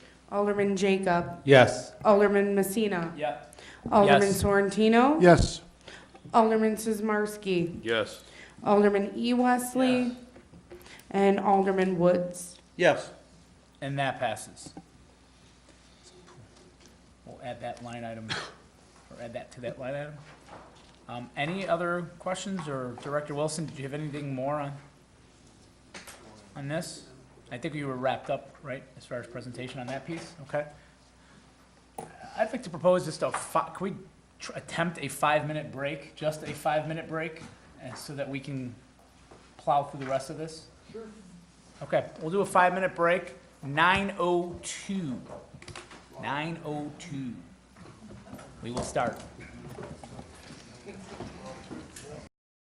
Alderman Jacob. Yes. Alderman Messina. Yeah. Alderman Yes. Sorrentino. Yes. Alderman Sizmarsky. Yes. Alderman E. Wesley. Yes. And Alderman Woods. Yes. And that passes. We'll add that line item, or add that to that line item. Um, any other questions, or Director Wilson, did you have anything more on, on this? I think we were wrapped up, right, as far as presentation on that piece, okay? I'd like to propose just a fi, can we tr- attempt a five-minute break, just a five-minute break, and so that we can plow through the rest of this? Okay, we'll do a five-minute break, nine oh two. Nine oh two. We will start.